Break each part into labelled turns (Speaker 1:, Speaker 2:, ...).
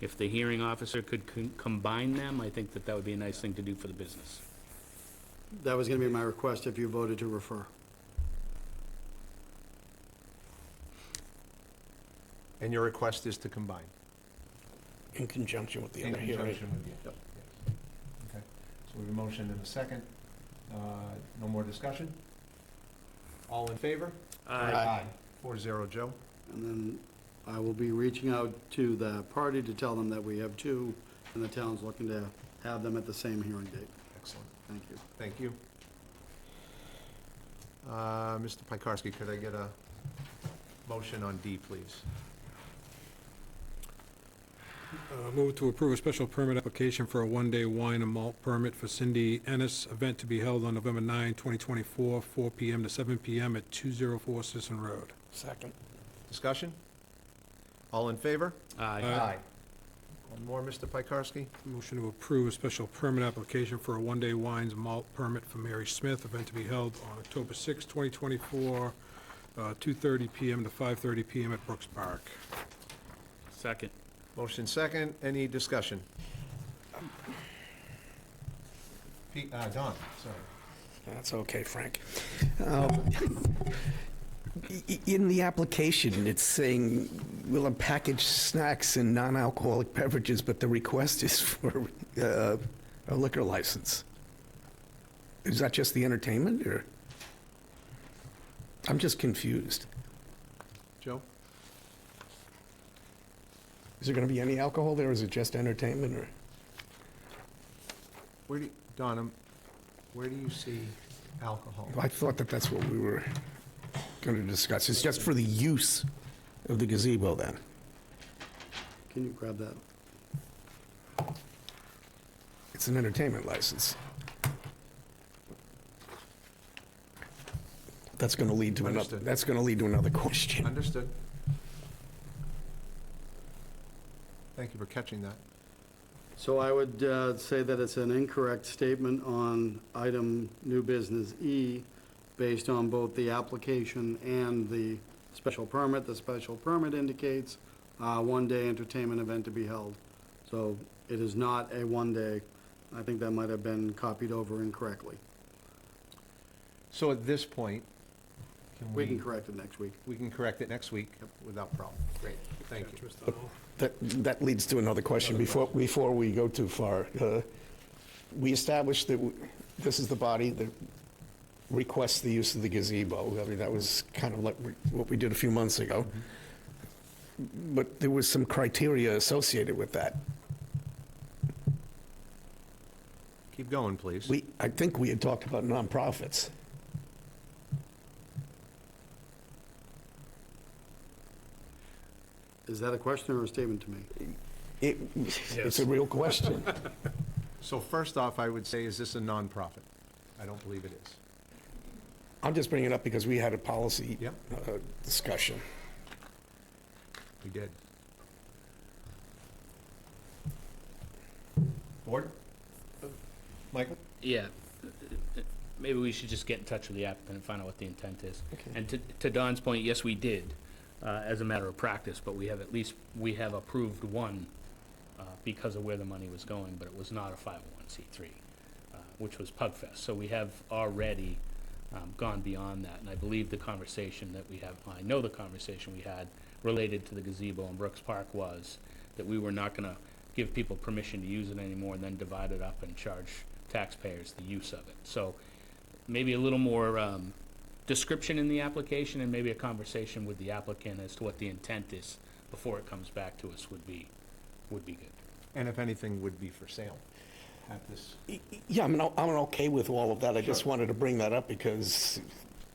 Speaker 1: If the hearing officer could con- combine them, I think that that would be a nice thing to do for the business.
Speaker 2: That was going to be my request if you voted to refer.
Speaker 3: And your request is to combine?
Speaker 4: in conjunction with the
Speaker 3: In
Speaker 4: other hearing.
Speaker 3: conjunction with the- Okay, so we have a motion and a second. Uh, No more discussion? All in favor? Four zero, Joe.
Speaker 2: And then I will be reaching out to the party to tell them that we have two, and the town's looking to have them at the same hearing date.
Speaker 3: Excellent,
Speaker 2: Thank you.
Speaker 3: thank you. Uh, Mr. Pikarsky, could I get a motion on D, please?
Speaker 5: Uh, Move to approve a special permit application for a one-day wine and malt permit for Cindy Ennis, event to be held on November 9, 2024, 4 PM to 7 PM at 204 Sisson Road.
Speaker 4: Second.
Speaker 3: Discussion? All in favor?
Speaker 1: Aye.
Speaker 5: Aye.
Speaker 3: One more, Mr. Pikarsky?
Speaker 5: Motion to approve a special permit application for a one-day wines and malt permit for Mary Smith, event to be held on October 6, 2024, uh, 2:30 PM to 5:30 PM at Brooks Park.
Speaker 1: Second.
Speaker 3: Motion second, any discussion? Pete, uh, Don, sorry.
Speaker 4: That's okay, Frank. Um, i- i- In the application, it's saying we'll package snacks and non-alcoholic beverages, but the request is for uh, a liquor license. Is that just the entertainment, or? I'm just confused.
Speaker 3: Joe?
Speaker 4: Is there going to be any alcohol there, or is it just entertainment, or?
Speaker 3: Where do, you- Don, um, where do you see alcohol?
Speaker 4: I thought that that's what we were going to discuss. It's just for the use of the gazebo, then?
Speaker 2: Can you grab that?
Speaker 4: It's an entertainment license. That's going to lead to another,
Speaker 3: Understood.
Speaker 4: that's going to lead to another question.
Speaker 3: Understood. Thank you for catching that.
Speaker 2: So I would uh, say that it's an incorrect statement on item new business E, based on both the application and the special permit. The special permit indicates uh one-day entertainment event to be held. So it is not a one-day. I think that might have been copied over incorrectly.
Speaker 3: So at this point, can
Speaker 2: We can
Speaker 3: we,
Speaker 2: correct it next week.
Speaker 3: we can correct it next week without problem. Great, thank you.
Speaker 4: That, that leads to another question before, before we go too far. Uh, We established that w- this is the body that requests the use of the gazebo. I mean, that was kind of like we- what we did a few months ago. But there was some criteria associated with that.
Speaker 3: Keep going, please.
Speaker 4: We, I think we had talked about nonprofits.
Speaker 2: Is that a question or a statement to me?
Speaker 4: It, it's a real question.
Speaker 3: So first off, I would say, is this a nonprofit? I don't believe it is.
Speaker 4: I'm just bringing it up because we had a policy
Speaker 3: Yep.
Speaker 4: uh, discussion.
Speaker 3: We did. Board? Michael?
Speaker 1: Yeah. Maybe we should just get in touch with the applicant and find out what the intent is. And to- to Don's point, yes, we did, uh, as a matter of practice, but we have at least, we have approved one uh, because of where the money was going, but it was not a 501c3, uh, which was Pugfest. So we have already um, gone beyond that, and I believe the conversation that we have, I know the conversation we had related to the gazebo in Brooks Park was that we were not going to give people permission to use it anymore and then divide it up and charge taxpayers the use of it. So maybe a little more um, description in the application and maybe a conversation with the applicant as to what the intent is before it comes back to us would be, would be good.
Speaker 3: And if anything, would be for sale at this.
Speaker 4: Y- y- Yeah, I'm, I'm okay with all of that. I just wanted to bring that up because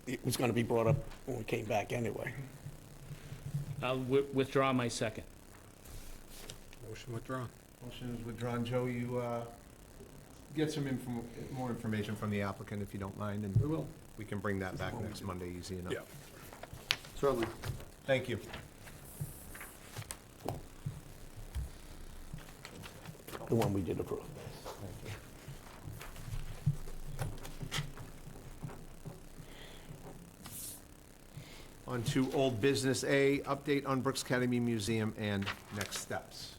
Speaker 4: it was going to be brought up when we came back anyway.
Speaker 1: I'll wi- withdraw my second.
Speaker 5: Motion withdrawn.
Speaker 3: Motion is withdrawn. Joe, you uh, get some inform- more information from the applicant if you don't mind, and. We will. We can bring that back next Monday, easy enough.
Speaker 5: Yeah.
Speaker 2: Certainly.
Speaker 3: Thank you.
Speaker 4: The one we did approve.
Speaker 3: On to old business A, update on Brooks Academy Museum and next steps.